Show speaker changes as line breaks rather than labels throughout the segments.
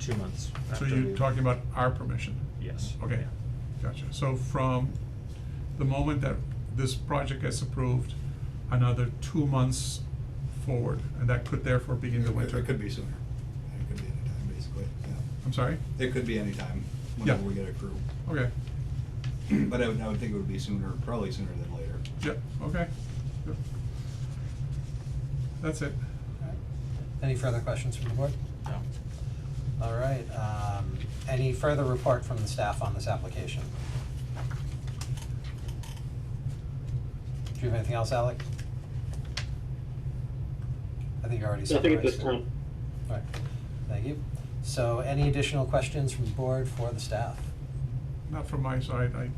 two months
So
after.
you're talking about our permission?
Yes.
Okay,
yeah.
gotcha. So from the moment that this project gets approved, another two months forward, and that could therefore be in the
It- it-
winter?
It could be sooner. It could be any time, basically, yeah.
I'm sorry?
It could be any time,
Yeah.
whenever we get a crew.
Okay,
But I would, I would think it would be sooner, probably sooner than later.
yep, okay. Yep. That's it.
Any further questions from the board?
No.
All right, um, any further report from the staff on this application? Do you have anything else, Alec? I think you already summarized
Nothing at this
it.
time.
All right, thank you. So any additional questions from the board for the staff?
Not from my side, I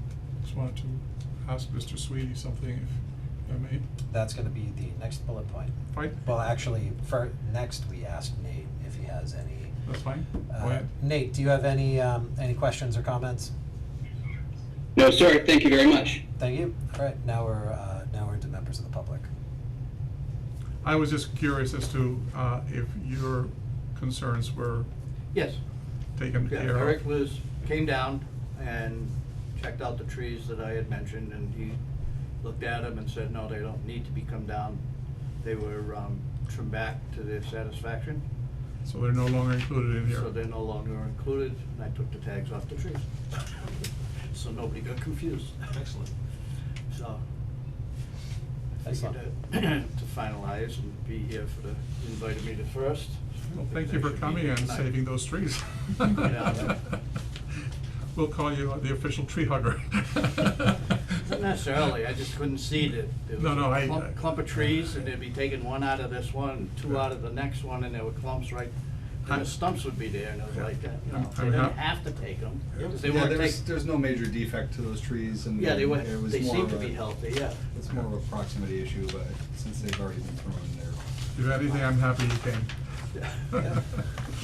just wanted to ask Mr. Sweetie something, if I may.
That's gonna be the next bullet point.
Right?
Well, actually, for, next we asked Nate if he has any.
That's fine? Go
uh,
ahead.
Nate, do you have any, um, any questions or comments?
No, sir, thank you very much.
Thank you. All right, now we're, uh, now we're into members of the public.
I was just curious as to uh, if your concerns were
Yes,
taken
yeah,
care of.
Eric was, came down and checked out the trees that I had mentioned, and he looked at them and said, no, they don't need to be come down. They were, um, trimmed back to their satisfaction,
So they're no longer included in here.
so they're no longer included, and I took the tags off the trees. So nobody got confused,
Excellent.
so. I
Excellent.
figured that to finalize and be here for the, invited me to first.
Well, thank you for
Should be
coming and
tonight.
saving those trees.
Yeah.
We'll call you uh, the official tree hugger.
Not necessarily, I just couldn't see that there was
No, no, I-
a clump, clump of trees, and they'd be taking one out of this one, two out of the next one, and there were clumps right, and
I-
the stumps would be there, and it was
Yeah.
like that, you
I'm-
know, they
I'm
didn't
hap-
have to take them, because they
Yeah,
weren't
there's,
taking,
there's no major defect to those trees and.
yeah, they were,
it was
they
more
seemed
of
to
a-
be healthy, yeah.
It's more of a proximity issue, but since they've already been thrown there.
If anything, I'm happy you came.
Yeah.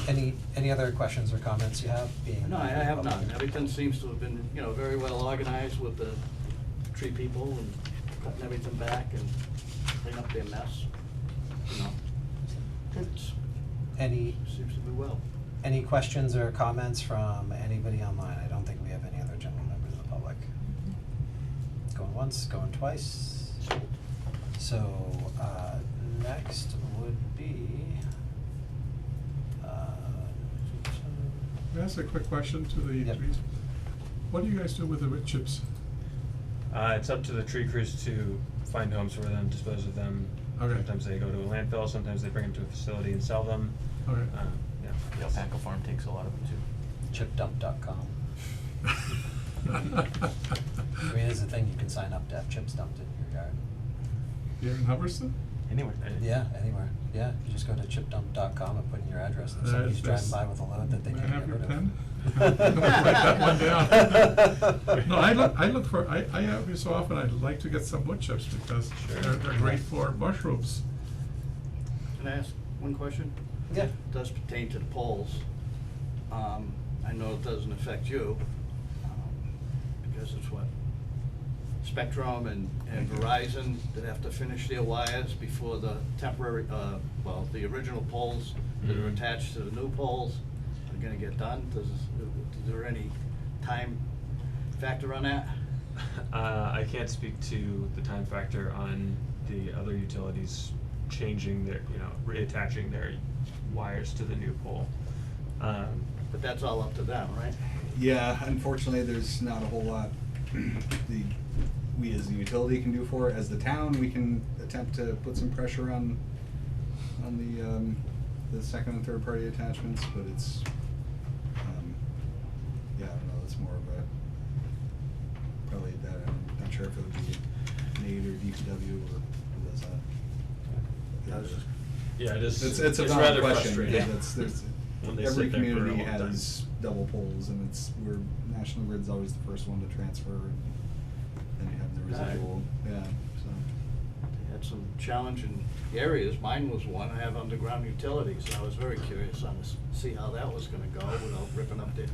Any, any other questions or comments you have being?
No, I I have
public?
none, everything seems to have been, you know, very well organized with the tree people and cutting everything back and cleaning up their mess, you know. It's,
Any,
seems to be well.
any questions or comments from anybody online? I don't think we have any other general members of the public. Going once, going twice. So, uh, next would be, uh,
Can I ask a quick question to the
Yep.
trees? What do you guys do with the wood chips?
Uh, it's up to the tree crews to find homes for them, dispose of them.
Okay.
Sometimes they go to a landfill, sometimes they bring them to a facility and sell them.
Okay.
Uh, yeah.
The alpaca farm takes a lot of them too.
chipdump.com. I mean, it's a thing, you can sign up to have chips dumped in your yard.
Here in Hubbardston?
Anyway.
Yeah, anywhere, yeah, you just go to chipdump.com and put in your address, and
Uh,
somebody's
that's-
driving by with a load that they
May I
can't
have
get
your
rid of.
pen? Write that one down. No, I look, I look for, I, I, every so often, I'd like to get some wood chips because
Sure.
they're, they're great for mushrooms.
Can I ask one question?
Yeah,
It does pertain to the polls. Um, I know it doesn't affect you, um, because it's what? Spectrum and, and Verizon that have to finish their wires before the temporary, uh, well, the original poles that are
Mhm.
attached to the new poles are gonna get done. Does, is there any time factor on that?
Uh, I can't speak to the time factor on the other utilities changing their, you know, reattaching their wires to the new pole. Um,
But that's all up to them, right?
Yeah, unfortunately, there's not a whole lot the, we as the utility can do for it. As the town, we can attempt to put some pressure on, on the, um, the second and third party attachments, but it's, um, yeah, I don't know, it's more of a, probably that, I'm not sure if it would be Nate or DPW or who does that.
I was just-
yeah, it is.
It's, it's a valid
rather
question,
frustrating.
because it's, there's,
When they
every
sit there for a
community
long time.
has double poles, and it's, we're, National Grid's always the first one to transfer, and then you have the
Right.
residual, yeah, so.
They had some challenging areas. Mine was one, I have underground utilities, and I was very curious on this, see how that was gonna go without ripping up the,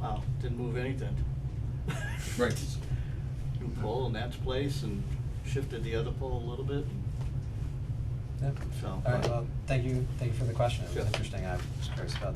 wow, didn't move anything.
Right.
New pole in that's place and shifted the other pole a little bit,
yeah.
so.
uh, All right, well, thank you, thank you for the question, it
Sure.
was interesting, I was curious about that.